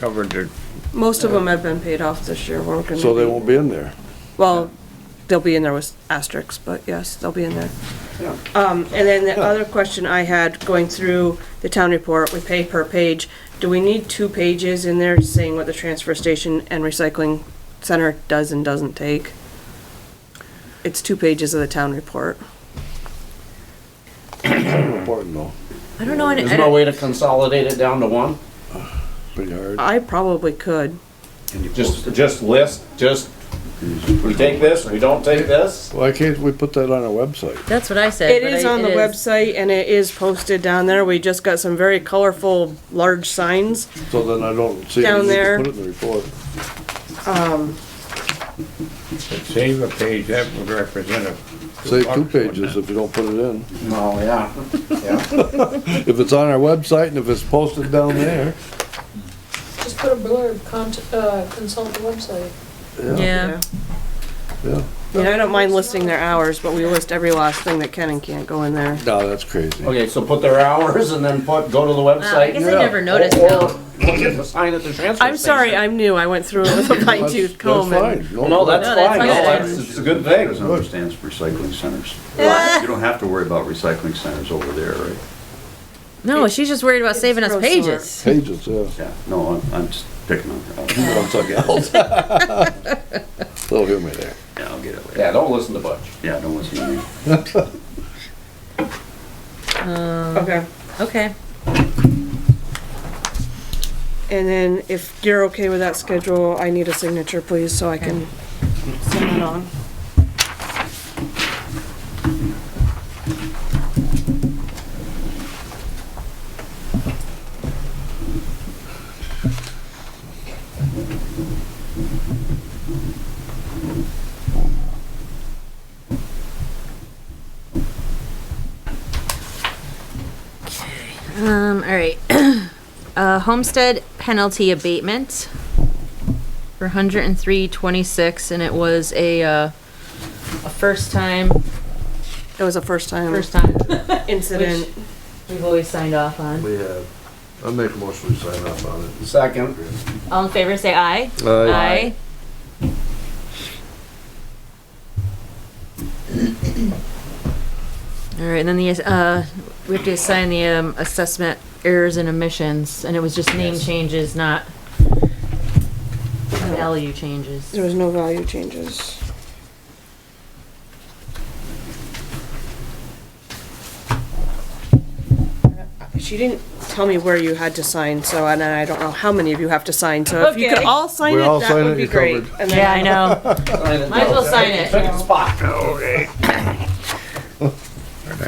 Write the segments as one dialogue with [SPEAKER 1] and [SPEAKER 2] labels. [SPEAKER 1] covered it,
[SPEAKER 2] Most of them have been paid off this year, weren't gonna.
[SPEAKER 3] so they
[SPEAKER 2] be-
[SPEAKER 3] won't be in there.
[SPEAKER 2] Well, they'll be in there with asterisks, but yes, they'll be in there. Um, and then the other question I had, going through the town report with pay per page, do we need two pages in there saying what the transfer station and recycling center does and doesn't take? It's two pages of the town report.
[SPEAKER 3] Important though,
[SPEAKER 4] I don't know, I
[SPEAKER 5] There's no
[SPEAKER 4] don't-
[SPEAKER 5] way to consolidate it down to one?
[SPEAKER 3] pretty hard.
[SPEAKER 2] I probably could.
[SPEAKER 5] Just, just list, just, we take this, we don't take this?
[SPEAKER 3] Why can't we put that on our website?
[SPEAKER 4] that's what I said.
[SPEAKER 2] It
[SPEAKER 4] but
[SPEAKER 2] is
[SPEAKER 4] I-
[SPEAKER 2] on the
[SPEAKER 4] it is-
[SPEAKER 2] website and it is posted down there. We just got some very colorful, large signs.
[SPEAKER 3] So then I don't see.
[SPEAKER 2] Down
[SPEAKER 3] any need to
[SPEAKER 2] there.
[SPEAKER 3] Put it in the report.
[SPEAKER 1] save a page, that would represent a.
[SPEAKER 3] Say two pages if you don't put it in.
[SPEAKER 5] No, yeah, yeah.
[SPEAKER 3] If it's on our website and if it's posted down there,
[SPEAKER 6] Just put a blurb, cont- uh, consult the website.
[SPEAKER 4] Yeah,
[SPEAKER 3] yeah.
[SPEAKER 2] You know, I don't mind listing their hours, but we list every last thing that can and can't go in there.
[SPEAKER 3] No, that's crazy.
[SPEAKER 5] Okay, so put their hours and then put, go to the
[SPEAKER 4] Wow, I guess
[SPEAKER 5] website.
[SPEAKER 4] I never noticed,
[SPEAKER 5] Or-
[SPEAKER 4] no.
[SPEAKER 5] or Look at the sign at the transfer station.
[SPEAKER 2] I'm sorry, I'm new. I went through it with a fine
[SPEAKER 3] That's-
[SPEAKER 2] tooth
[SPEAKER 3] that's
[SPEAKER 2] comb. and-
[SPEAKER 3] fine.
[SPEAKER 5] No, that's
[SPEAKER 4] No, that's
[SPEAKER 5] fine, no,
[SPEAKER 4] fine.
[SPEAKER 5] that's, it's a good thing.
[SPEAKER 7] Arizona stands for recycling centers. You don't have to worry about recycling centers over there, right?
[SPEAKER 4] no, she's just worried about saving us
[SPEAKER 2] gross
[SPEAKER 4] pages.
[SPEAKER 3] Pages, yeah.
[SPEAKER 7] Yeah, no, I'm, I'm just picking on her.
[SPEAKER 3] One second. They'll hear me there.
[SPEAKER 7] Yeah, I'll get it later.
[SPEAKER 5] Yeah, don't listen to Butch.
[SPEAKER 7] Yeah, don't listen to me.
[SPEAKER 2] Okay.
[SPEAKER 4] Um, Okay,
[SPEAKER 2] And then if you're okay with that schedule, I need a signature, please, so I can send it on.
[SPEAKER 4] um, all right. Uh, homestead penalty abatement for hundred and three twenty-six, and it was a, uh, a first time,
[SPEAKER 2] It was a first time
[SPEAKER 4] first time
[SPEAKER 2] incident.
[SPEAKER 4] we've always signed off on.
[SPEAKER 3] We have, I make a motion to sign up on it.
[SPEAKER 5] Second,
[SPEAKER 4] All in favor, say aye. Aye. All right, and then the, uh, we have to assign the, um, assessment errors and omissions, and it was just name changes, not value changes.
[SPEAKER 2] There was no value changes. She didn't tell me where you had to sign, so, and I don't know how many of you have to sign, so if you could
[SPEAKER 4] Okay.
[SPEAKER 2] all sign
[SPEAKER 3] We
[SPEAKER 2] it,
[SPEAKER 3] all sign
[SPEAKER 2] that
[SPEAKER 3] it,
[SPEAKER 2] would be
[SPEAKER 3] you're
[SPEAKER 2] great.
[SPEAKER 3] covered.
[SPEAKER 2] And then-
[SPEAKER 4] Yeah, I know. Might as well sign it.
[SPEAKER 5] spot.
[SPEAKER 1] Okay,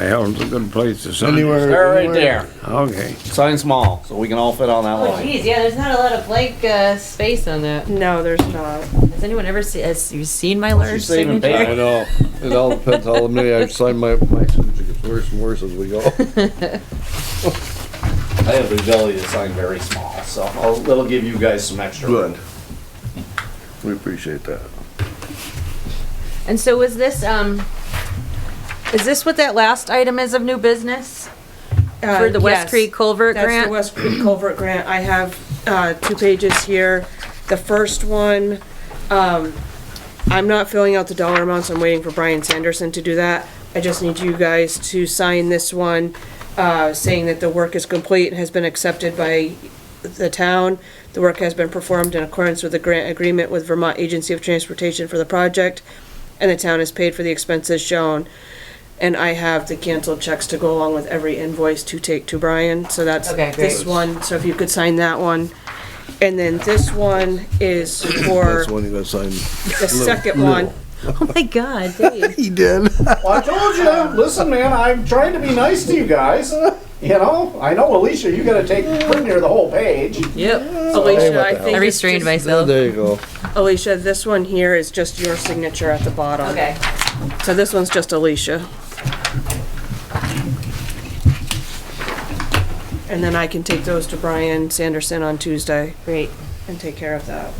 [SPEAKER 1] that was a good place to sign.
[SPEAKER 3] Anywhere.
[SPEAKER 5] They're right
[SPEAKER 3] anywhere.
[SPEAKER 5] there.
[SPEAKER 1] Okay,
[SPEAKER 5] Sign small, so we can all fit on that
[SPEAKER 4] Oh,
[SPEAKER 5] line.
[SPEAKER 4] geez, yeah, there's not a lot of blank, uh, space on that.
[SPEAKER 2] No, there's not.
[SPEAKER 4] Has anyone ever seen, has you seen my large
[SPEAKER 5] She's saving
[SPEAKER 4] signature?
[SPEAKER 3] I know. It all depends how many I sign my, my signature gets worse and worse as we go.
[SPEAKER 5] I have the ability to sign very small, so I'll, that'll give you guys some extra.
[SPEAKER 3] Good. We appreciate that.
[SPEAKER 4] And so was this, um, is this what that last item is of new business? For the West Creek Culvert
[SPEAKER 2] Uh, That's the
[SPEAKER 4] Grant?
[SPEAKER 2] West Creek Culvert Grant. I have uh, two pages here. The first one, um, I'm not filling out the dollar amounts. I'm waiting for Brian Sanderson to do that. I just need you guys to sign this one, uh, saying that the work is complete and has been accepted by the town. The work has been performed in accordance with the grant agreement with Vermont Agency of Transportation for the project, and the town has paid for the expenses shown. And I have the canceled checks to go along with every invoice to take to Brian, so that's
[SPEAKER 4] Okay, great.
[SPEAKER 2] this one, so if you could sign that one. And then this one is for
[SPEAKER 3] That's one you gotta sign.
[SPEAKER 2] the second one.
[SPEAKER 4] Oh my God, Dave.
[SPEAKER 3] He did.
[SPEAKER 5] Well, I told you, listen, man, I'm trying to be nice to you guys. You know, I know Alicia, you gotta take pretty near the whole page.
[SPEAKER 4] Yep,
[SPEAKER 2] Alicia, I
[SPEAKER 4] I
[SPEAKER 2] think. it's
[SPEAKER 4] restrained
[SPEAKER 2] just-
[SPEAKER 4] myself.
[SPEAKER 3] There you go.
[SPEAKER 2] Alicia, this one here is just your signature at the bottom.
[SPEAKER 4] Okay.
[SPEAKER 2] So this one's just Alicia. And then I can take those to Brian Sanderson on Tuesday
[SPEAKER 4] Great.
[SPEAKER 2] and take care of that.